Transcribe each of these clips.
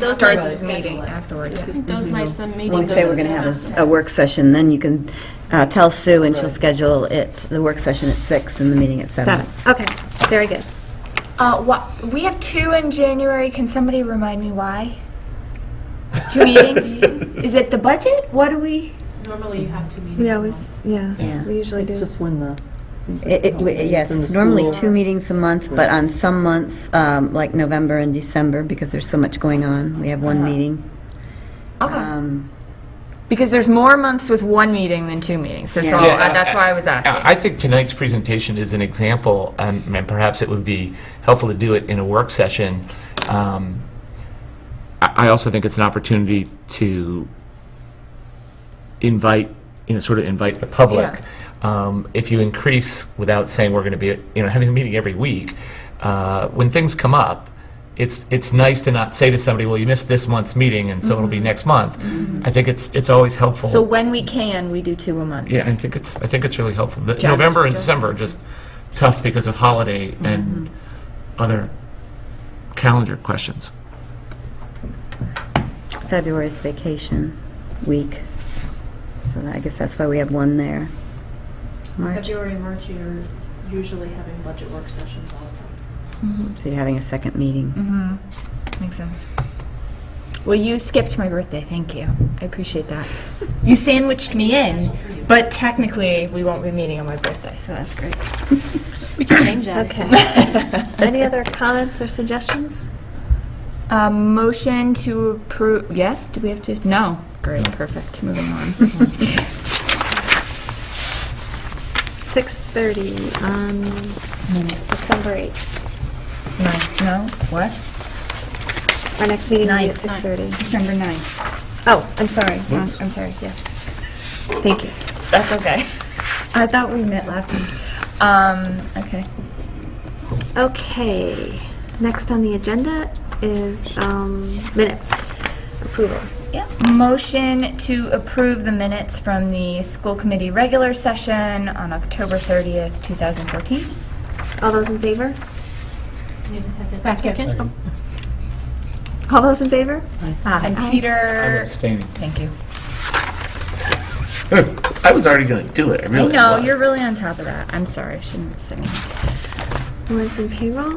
Those starts nights the of meeting schedule it. afterward. Those nights of meeting. When we say we're going to have a s- a work session, then you can uh, tell Sue, and she'll schedule it, the work session at six and the meeting at seven. Seven. Okay, very good. Uh, wha- we have two in January. Can somebody remind me why? Two meetings? Is it the budget? What do we? Normally you have two meetings. We a always, month. yeah, Yeah. we usually It's do. just when the. seems like It- it- the we- holidays Yes, and it's Oh, the normally school- two meetings a month, but on some months, um, like November and December, because there's so much going on, we have Uh-huh. one meeting. Okay. Um, because there's more months with one meeting than two meetings. That's Yeah. all. Oh, uh, that's why I was asking. I think tonight's presentation is an example, and and perhaps it would be helpful to do it in a work session. Um, I I also think it's an opportunity to invite, you know, sort of invite the public. Um, If you increase, without saying we're going to be, you know, having a meeting every week, uh, when things come up, it's, it's nice to not say to somebody, well, you missed this month's meeting, and so it'll Mm-hmm. be next month. I think it's, it's always helpful. so when we can, we do two a month. Yeah, I think it's, I think it's really helpful. The- November and just- Mm-hmm. December are just tough because of holiday and other calendar questions. February's vacation week, so that- I guess that's why we have one there. March, February, March, you're s- usually having budget work sessions also. so you're having a second meeting. Makes sense. Well, you skipped my birthday. Thank you. I appreciate that. You sandwiched me in, but technically we won't be meeting on my birthday, so that's great. Okay. Any other comments or suggestions? Uh, motion to approve, yes, do we have to, no, great, perfect, moving on. 6:30 on December 8th. No, no, what? Our next meeting will be Ninth, at ninth. 6:30. December 9th. Oh, I'm sorry. Wrong- I'm sorry, yes. Thank you. That's okay. I thought we met last week. Um, okay. Okay, next on the agenda is um, minutes approval. Yeah. Motion to approve the minutes from the school committee regular session on October 30th, 2014. All those in favor? Need a second? All those in favor? And Peter, abstaining. thank you. I was already going to do it, I I really know, was. you're really on top of that. I'm sorry, I shouldn't have said anything. Warrants and payroll?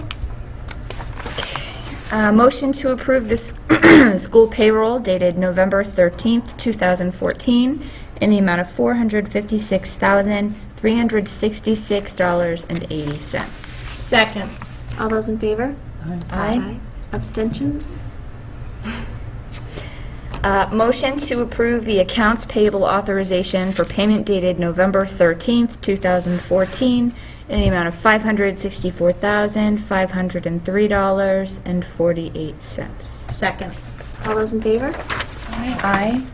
Uh, Motion to approve this school payroll dated November 13th, 2014, in the amount of $456,366.80. Second. All those in favor? Aye. Abstentions? Uh, Motion to approve the accounts payable authorization for payment dated November 13th, 2014, in the amount of $564,503.48. Second. All those in favor? Aye.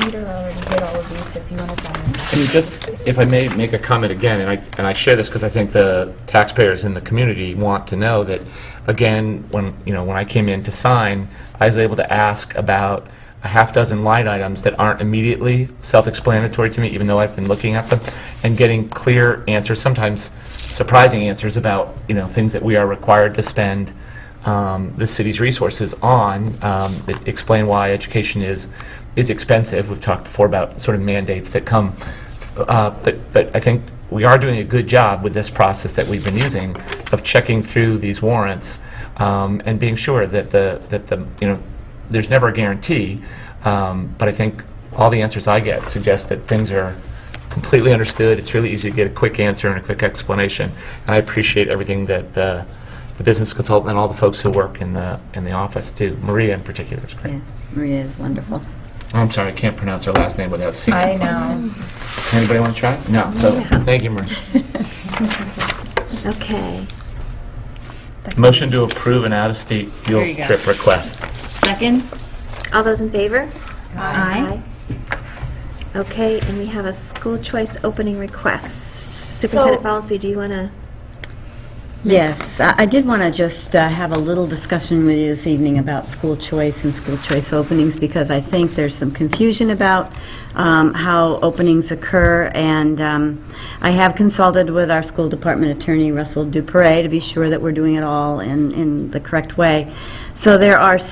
Peter already did all of these, if you want to sign them. Can you just, if I may, make a comment again, and I, and I share this because I think the taxpayers in the community want to know that, again, when, you know, when I came in to sign, I was able to ask about a half dozen line items that aren't immediately self-explanatory to me, even though I've been looking at them, and getting clear answers, sometimes surprising answers about, you know, things that we are required to spend um, the city's resources on, um, that explain why education is, is expensive. We've talked before about sort of mandates that come, uh, but, but I think we are doing a good job with this process that we've been using of checking through these warrants um, and being sure that the, that the, you know, there's never a guarantee, um, but I think all the answers I get suggest that things are completely understood. It's really easy to get a quick answer and a quick explanation, and I appreciate everything that the the business consultant and all the folks who work in the, in the office do. Maria in particular is Mm-hmm. great. Yes, Maria is wonderful. Oh, I'm sorry, I can't pronounce her last name without seeing I it. know. Anybody want to try? No, so, thank you, Maria. Okay. Motion to approve an out-of-state There field you go. trip request. Second? All those in favor? Aye. Okay, and we have a school choice opening request. Superintendent So- Fallsby, do you want to Yes, I I did want to just uh, have a little discussion with you this evening about school choice and school choice openings, because I think there's some confusion about um, how openings occur, and um, I have consulted with our school department attorney, Russell Dupre, to be sure that we're doing it all in in the correct way. So there are